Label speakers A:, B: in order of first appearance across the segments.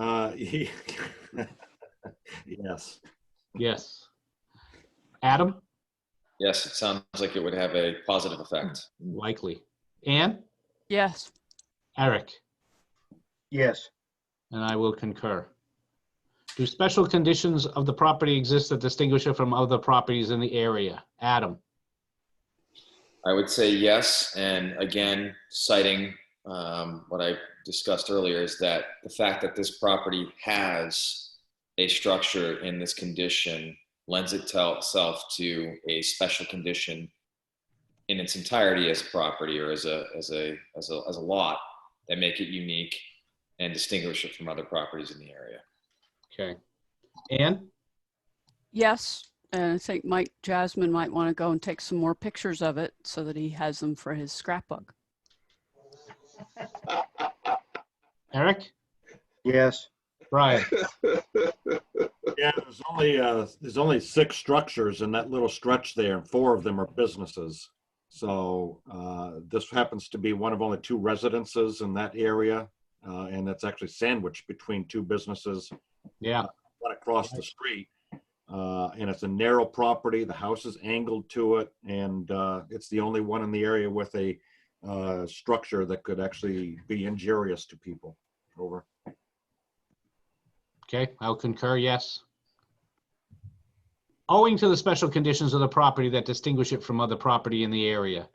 A: Uh, Yes.
B: Yes. Adam,
C: Yes, it sounds like it would have a positive effect.
B: likely. Anne,
D: Yes.
B: Eric,
E: Yes,
B: and I will concur. Do special conditions of the property exist that distinguish it from other properties in the area? Adam,
C: I would say yes, and again, citing um, what I discussed earlier is that the fact that this property has a structure in this condition lends itself to a special condition in its entirety as a property or as a as a as a as a lot that make it unique and distinguish it from other properties in the area.
B: okay. Anne,
D: Yes. And I think Mike Jasmine might want to go and take some more pictures of it so that he has them for his scrapbook.
B: Eric,
E: yes,
B: Brian,
A: Yeah, there's only, uh, there's only six structures in that little stretch there, and four of them are businesses. So, uh, this happens to be one of only two residences in that area, uh, and it's actually sandwiched between two businesses.
B: yeah,
A: right across the street. Uh, and it's a narrow property. The house is angled to it, and uh, it's the only one in the area with a uh, structure that could actually be injurious to people. Over.
B: okay, I'll concur, yes. Owing to the special conditions of the property that distinguish it from other property in the area,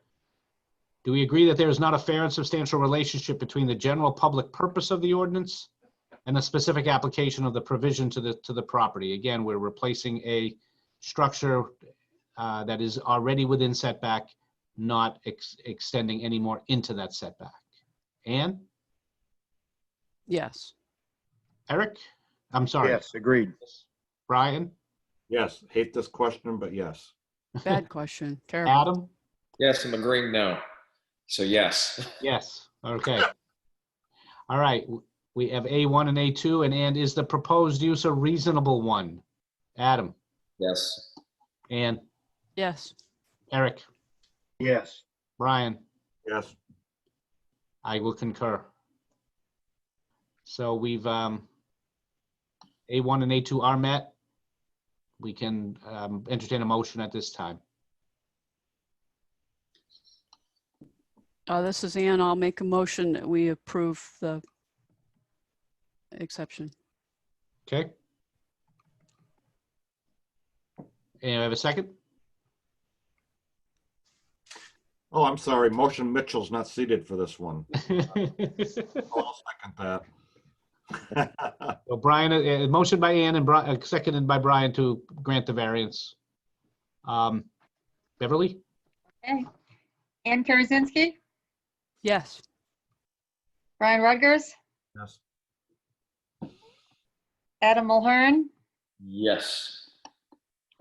B: do we agree that there is not a fair and substantial relationship between the general public purpose of the ordinance and the specific application of the provision to the, to the property? Again, we're replacing a structure uh, that is already within setback, not ex- extending any more into that setback. Anne,
D: Yes.
B: Eric? I'm sorry.
E: yes, agreed.
B: Brian?
A: Yes, hate this question, but yes.
D: Bad question. Terrible.
B: Adam?
C: Yes, I'm agreeing no. So yes.
B: Yes, okay. All right, w- we have A1 and A2, and and is the proposed use a reasonable one? Adam,
C: Yes.
B: and
D: Yes.
B: Eric,
E: Yes,
B: Brian,
A: Yes.
B: I will concur. So we've, um, A1 and A2 are met. We can um, entertain a motion at this time.
D: Uh, this is Ann. I'll make a motion that we approve the exception.
B: Okay. And I have a second?
A: Oh, I'm sorry. Motion Mitchell's not seated for this one. I'll second that.
B: So Brian, uh, uh, motion by Ann and Bri- uh, seconded by Brian to grant the variance. Um, Beverly,
F: Okay. Ann Karazinski,
D: Yes.
F: Brian Rutgers,
A: Yes.
F: Adam Mulhern,
C: Yes.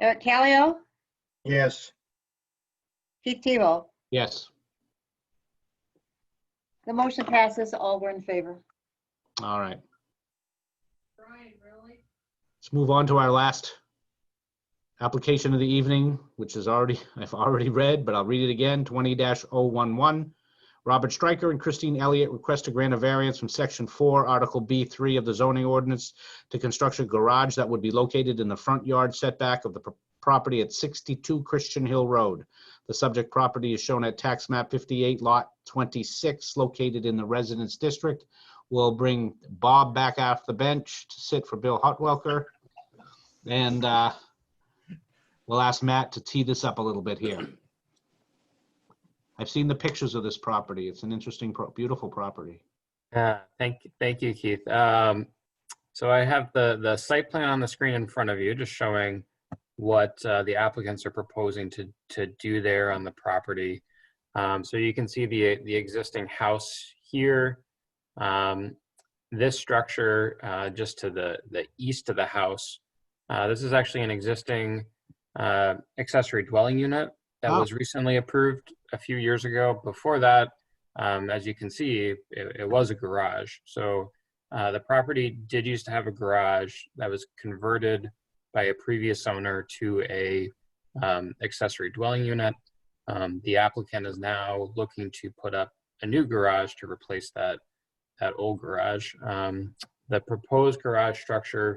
F: Eric Callio,
E: yes,
F: Pete Tebow.
B: yes.
F: The motion passes. All were in favor.
B: All right.
F: Brian, really?
B: Let's move on to our last application of the evening, which is already, I've already read, but I'll read it again, 20-011. Robert Stryker and Christine Elliott request to grant a variance from Section 4, Article B3 of the zoning ordinance to construct a garage that would be located in the front yard setback of the pro- property at 62 Christian Hill Road. The subject property is shown at Tax Map 58, Lot 26, located in the Residence District We'll bring Bob back off the bench to sit for Bill Hotwelker. And uh, we'll ask Matt to tee this up a little bit here. I've seen the pictures of this property. It's an interesting, pro- beautiful property.
G: Uh, thank, thank you, Keith. Um, so I have the, the site plan on the screen in front of you, just showing what uh, the applicants are proposing to, to do there on the property. Um, so you can see the, the existing house here. Um, this structure, uh, just to the, the east of the house. Uh, this is actually an existing uh, accessory dwelling unit that
B: Oh.
G: was recently approved a few years ago. Before that, um, as you can see, it, it was a garage. So uh, the property did used to have a garage that was converted by a previous owner to a um, accessory dwelling unit. Um, the applicant is now looking to put up a new garage to replace that that old garage. Um, The proposed garage structure